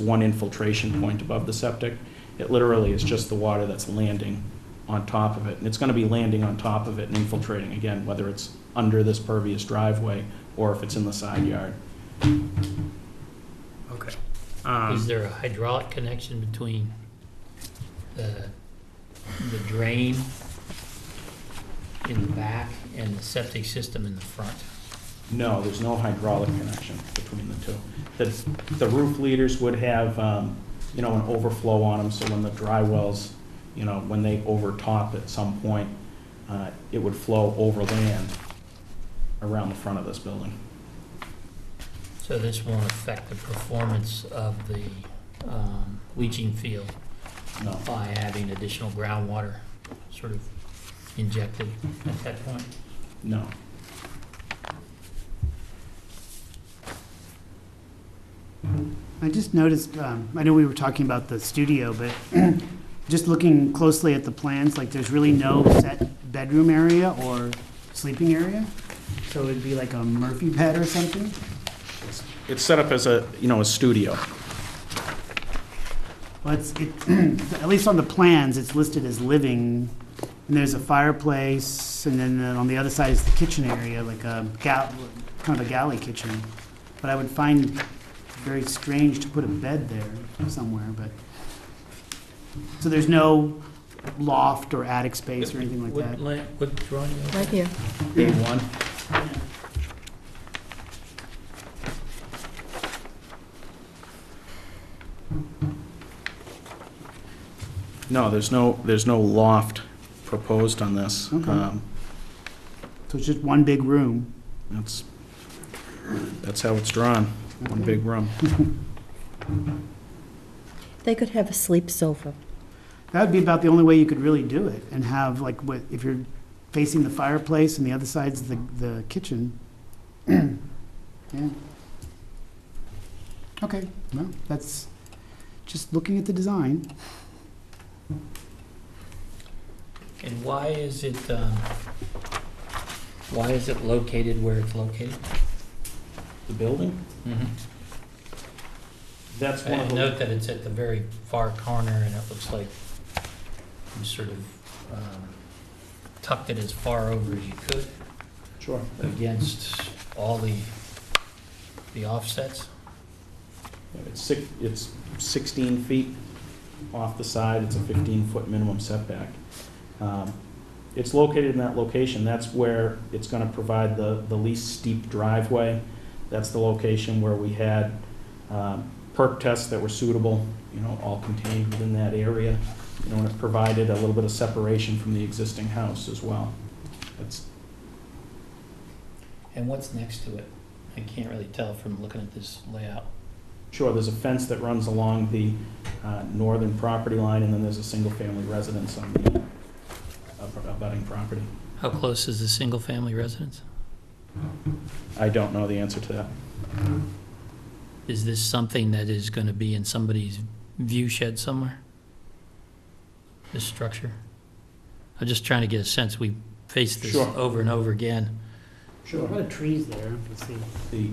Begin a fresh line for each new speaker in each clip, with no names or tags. one infiltration point above the septic. It literally is just the water that's landing on top of it. And it's going to be landing on top of it and infiltrating again, whether it's under this pervious driveway or if it's in the side yard.
Okay.
Is
Um,
there a hydraulic connection between the, the drain in the back and the septic system in the front?
No, there's no hydraulic connection between the two. The, the roof leaders would have, um, you know, an overflow on them, so when the dry wells, you know, when they overtop at some point, uh, it would flow over land around the front of this building.
So this won't affect the performance of the um, leaching field
No,
by having additional groundwater sort of injected at that point?
no.
I just noticed, um, I know we were talking about the studio, but just looking closely at the plans, like, there's really no set bedroom area or sleeping area? So it'd be like a Murphy bed or something?
It's set up as a, you know, a studio.
Well, it's, it, at least on the plans, it's listed as living, and there's a fireplace, and then uh, on the other side is the kitchen area, like a gal, kind of a galley kitchen. But I would find very strange to put a bed there somewhere, but, so there's no loft or attic space or anything like
What
that?
la- What drawing? is that?
Right here.
A1. No, there's no, there's no loft proposed on this.
Okay.
Um,
So it's just one big room?
That's, that's how it's drawn, one big room.
They could have a sleep sofa.
That'd be about the only way you could really do it, and have, like, what, if you're facing the fireplace and the other side's the, the kitchen. Yeah. Okay, well, that's, just looking at the design,
And why is it, um, why is it located where it's located?
The building?
Mm-hmm.
That's one
I
of the,
note that it's at the very far corner, and it looks like you sort of um, tucked it as far over as you could
sure.
against all the, the offsets.
It's six, it's 16 feet off the side, it's a 15-foot minimum setback. Um, It's located in that location, that's where it's gonna provide the, the least steep driveway. That's the location where we had um, perk tests that were suitable, you know, all contained within that area. You know, and it provided a little bit of separation from the existing house as well. That's,
And what's next to it? I can't really tell from looking at this layout.
Sure, there's a fence that runs along the uh, northern property line, and then there's a single-family residence on the ab- abutting property.
How close is the single-family residence?
I don't know the answer to that.
Is this something that is going to be in somebody's view shed somewhere? This structure? I'm just trying to get a sense. We faced this
Sure.
over and over again.
a lot of trees there, let's see.
The,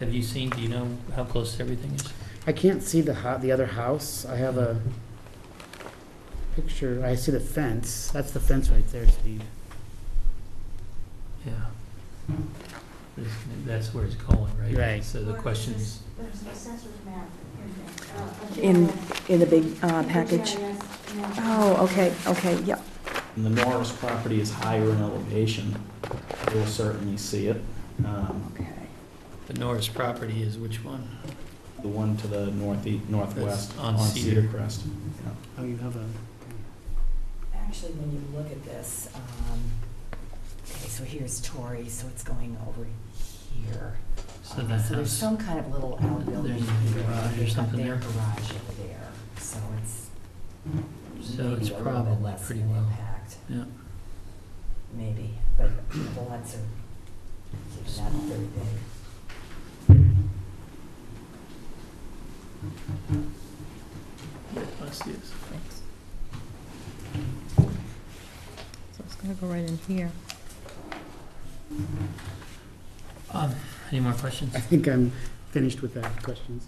Have you seen, do you know how close everything is?
I can't see the hou- the other house, I have a picture, I see the fence, that's the fence right there, Steve.
Yeah. This- That's where it's going, right?
Right.
So the question is,
There's an assessor's map
In, in the big uh, package? Oh, okay, okay, yeah.
and the Norris property is higher in elevation. You'll certainly see it. Um,
Okay.
the Norris property is which one?
The one to the northeast, northwest
That's on
on
Cedar.
Cedar Crest.
Oh, you have a,
Actually, when you look at this, um, okay, so here's Torrey, so it's going over here.
So
Um,
that
So there's
house,
some kind of little outbuilding
There's a
here.
garage or
They've got
something
their
there?
Garage over there, so it's
so
maybe
it's
a little bit
probably
less
pretty
of an
well.
impact,
Yeah.
Maybe, but the lots are not very big.
I see this.
So it's gonna go right in here.
Um, Any more questions? Um,
I think I'm finished with that, questions?